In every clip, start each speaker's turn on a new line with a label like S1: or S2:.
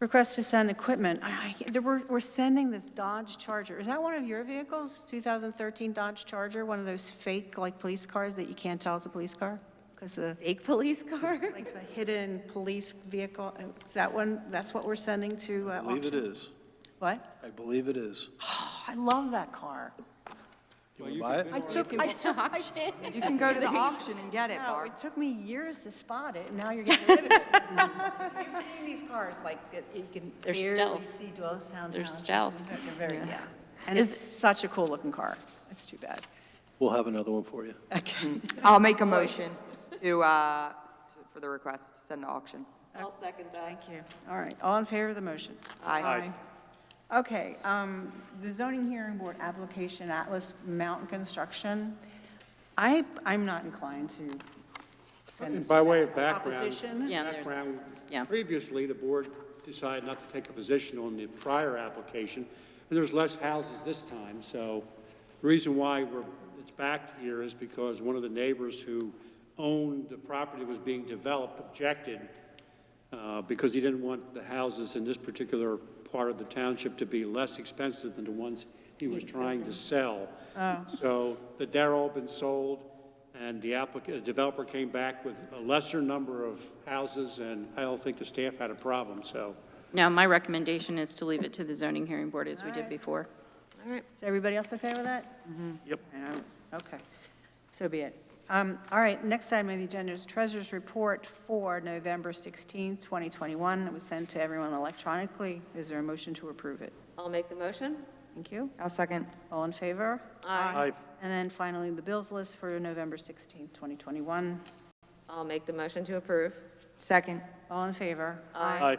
S1: Request to send equipment. I- I- there We're we're sending this Dodge Charger. Is that one of your vehicles, 2013 Dodge Charger? One of those fake, like, police cars that you can't tell is a police car? Because the,
S2: Fake police car?
S1: like, the hidden police vehicle, uh, is that one, that's what we're sending to uh,
S3: I
S1: auction?
S3: believe it is.
S1: What?
S3: I believe it is.
S1: Oh, I love that car.
S3: You want to buy it?
S1: I took, I took, I took-
S4: You can go to the auction and get it,
S1: no,
S4: Barb.
S1: it took me years to spot it, and now you're getting rid of it. So You've seen these cars, like, that you can
S2: They're
S1: barely
S2: stealth.
S1: see Doylestown.
S2: They're
S1: Township.
S2: stealth.
S1: They're very,
S2: Yeah.
S1: yeah. And it's such a cool-looking car. It's too bad.
S3: We'll have another one for you.
S1: Okay.
S4: I'll make a motion to, uh, to- for the request to send to auction.
S2: I'll second that.
S1: Thank you. All right, all in favor of the motion?
S4: Aye. Aye.
S1: Aye. Okay, um, the zoning hearing board application, Atlas Mountain Construction. I, I'm not inclined to send
S5: And
S1: this.
S5: By way of background,
S1: Opposition?
S2: Yeah, there's-
S5: background,
S2: yeah.
S5: previously, the board decided not to take a position on the prior application, and there's less houses this time, so the reason why we're, it's back here is because one of the neighbors who owned the property that was being developed objected uh, because he didn't want the houses in this particular part of the township to be less expensive than the ones he was trying to sell. So, but they're all been sold, and the applicant, the developer came back with a lesser number of houses, and I don't think the staff had a problem, so.
S2: Now, my recommendation is to leave it to the zoning hearing board as we did before.
S1: Is everybody else okay with that?
S5: Yep.
S1: No. Okay, so be it. Um, All right, next item on the agenda is Treasurers' Report for November 16, 2021. It was sent to everyone electronically. Is there a motion to approve it?
S6: I'll make the motion.
S1: Thank you.
S4: I'll second.
S1: All in favor?
S6: Aye.
S1: And then finally, the bills list for November 16, 2021.
S6: I'll make the motion to approve.
S4: Second.
S1: All in favor?
S6: Aye.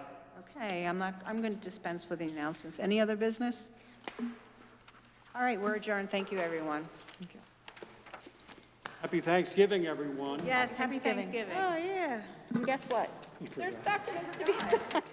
S1: Okay, I'm not, I'm going to dispense with the announcements. Any other business? All right, we're adjourned. Thank you, everyone.
S5: Happy Thanksgiving, everyone.
S1: Yes, happy Thanksgiving.
S6: Oh, yeah. And guess what? There's documents to be signed.